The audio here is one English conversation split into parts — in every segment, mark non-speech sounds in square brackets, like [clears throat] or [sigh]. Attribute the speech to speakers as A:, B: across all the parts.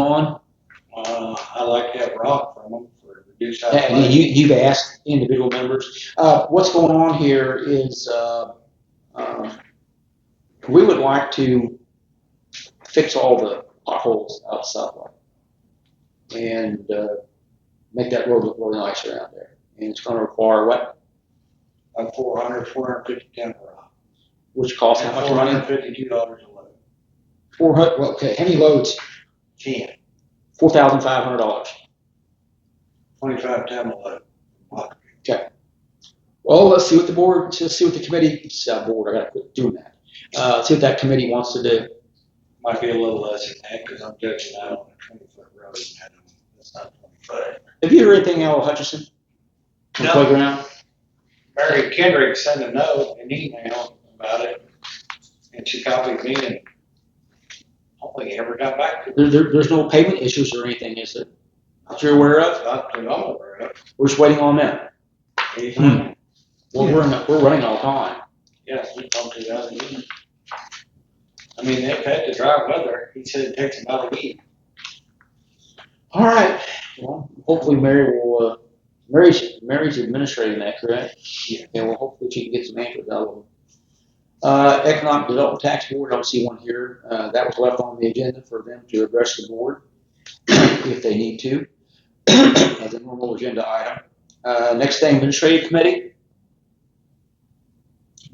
A: on?
B: Uh, I like to have rock from them for reduced.
A: And you, you've asked individual members. Uh, what's going on here is, uh, um, we would like to fix all the potholes out Southwick and, uh, make that road look really nice around there. And it's gonna require what,
B: A four hundred, four hundred fifty ton of rock.
A: which costs how much
B: Four
A: money?
B: hundred fifty-two dollars a load.
A: Four hundred. well, okay, how many loads?
B: Ten.
A: Four thousand five hundred dollars.
B: Twenty-five ton a load. Rock.
A: Well, let's see what the board, let's see what the committee, uh, board, I gotta quit doing that. Uh, see what that committee wants to do.
B: Might be a little less than that, cause I'm judging that on a twenty-foot road and I don't- that's not twenty-foot.
A: Have you heard anything out of Hutchinson? From
B: No.
A: Playground?
B: Mary Kendrick sent a note, an email about it, and she copied me and hopefully ever got back to me.
A: There, there, there's no payment issues or anything, is there? That you're aware of?
B: Not to know where it
A: We're just waiting on them.
B: is.
A: Hmm. We're, we're, in- we're running all time.
B: Yes, we talked to the other evening. I mean, they've had the dry weather, he said it takes about a [laughs] week.
A: All right. Well, hopefully Mary will, uh, Mary's, Mary's administrating that, correct?
B: Yeah.
A: And well, hopefully she can get some answers out of them. Uh, Economic Development Tax Board, I don't see one here. Uh, that was left on the agenda for them to address the board [clears throat] if they need to, [clears throat] as a normal agenda item. Uh, next thing, Administrative Committee?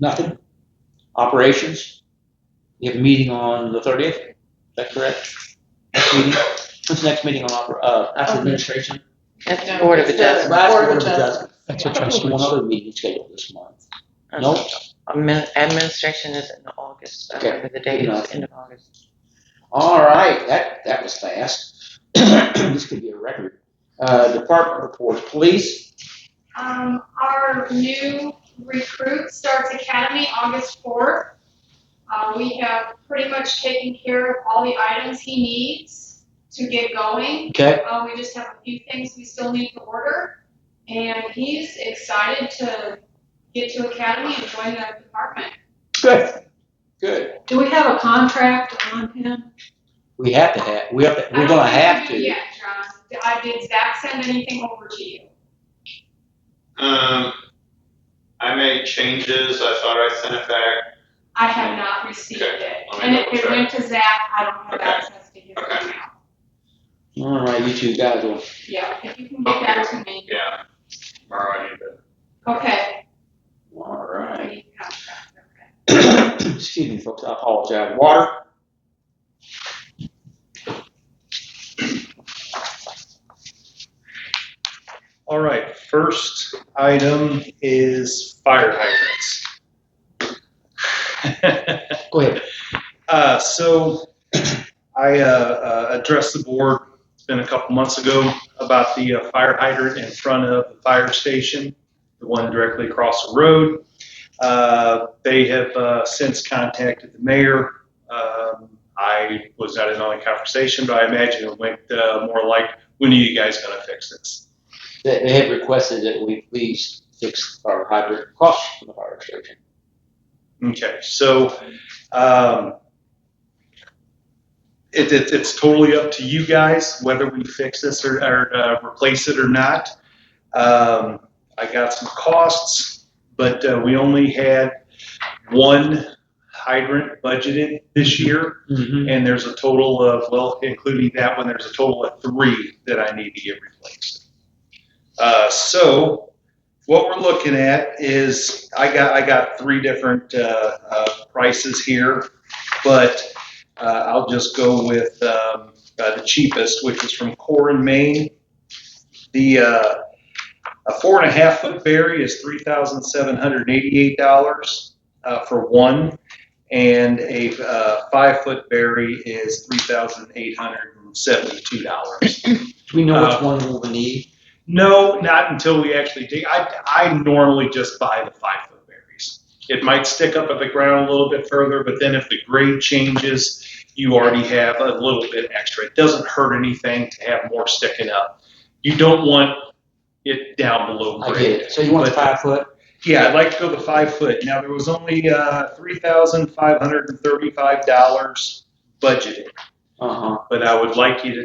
A: Nothing. Operations? You have a meeting on the thirtieth, is that correct? Next meeting? What's the next meeting on, oper- uh, after administration?
C: That's the Board of
A: That's
C: Adjustment.
A: last
D: Board of
A: Board of
D: Adjustment.
A: That's One other meeting scheduled this month. Nope.
C: Admin- Administration is in August, I
A: Okay.
C: remember the date, it's end of August.
A: All right, that, that was fast. [clears throat] This could be a record. Uh, department reports, police,
E: Um, our new recruit starts academy August fourth. Uh, we have pretty much taken care of all the items he needs to get going.
A: okay?
E: Uh, we just have a few things we still need to order, and he's excited to get to academy and join the department.
A: Good. [laughs] Good.
D: Do we have a contract on him?
A: We have to have, we have, to-
E: I
A: we're
E: don't
A: gonna
E: think we
A: have
E: do
A: to.
E: yet, John. I did Zach send anything over to you?
F: Um, I made changes. I thought I sent it back.
E: I have not received
F: Okay,
E: it.
F: let me
E: And if
F: double
E: it
F: check.
E: went to Zach, I don't have
F: Okay,
E: access to his
F: okay.
E: email.
A: All right, you two guys will
E: Yeah, if you can get that to me.
F: Yeah. Tomorrow I need to.
E: Okay.
A: All right. [clears throat]
E: Okay.
A: Excuse me, folks, I apologize. Water?
G: All right, first item is fire hydrants.
A: Go ahead.
G: Uh, so I, uh, uh, addressed the board, it's been a couple months ago, about the uh, fire hydrant in front of the fire station, the one directly across the road. Uh, they have, uh, since contacted the mayor. Um, I was not in on the conversation, but I imagine it went, uh, more like, when are you guys gonna fix this?
A: They, they had requested that we please fix our hydrant across from the fire station.
G: Okay, so um, it, it, it's totally up to you guys whether we fix this or, or uh, replace it or not. Um, I got some costs, but uh, we only had one hydrant budgeted this year,
A: Mm-hmm.
G: and there's a total of, well, including that one, there's a total of three that I need to get replaced. Uh, so what we're looking at is I got I got three different uh, uh, prices here, but uh, I'll just go with um, uh, the cheapest, which is from Core in Maine. The uh, a four and a half foot berry is three thousand seven hundred eighty eight dollars uh, for one, and a uh, five foot berry is three thousand eight hundred seventy two dollars.
A: Do we know which
G: Uh,
A: one we'll need?
G: No, not until we actually dig. I, I normally just buy the five foot berries. It might stick up at the ground a little bit further, but then if the grade changes, you already have a little bit extra. It doesn't hurt anything to have more sticking up. You don't want it down below
A: I
G: grade.
A: get it. So you want the
G: But-
A: five foot?
G: Yeah, I'd like to go the five foot. Now, there was only uh, $3,535
A: Uh
G: budgeted,
A: huh. Uh-huh.
G: but I would like you to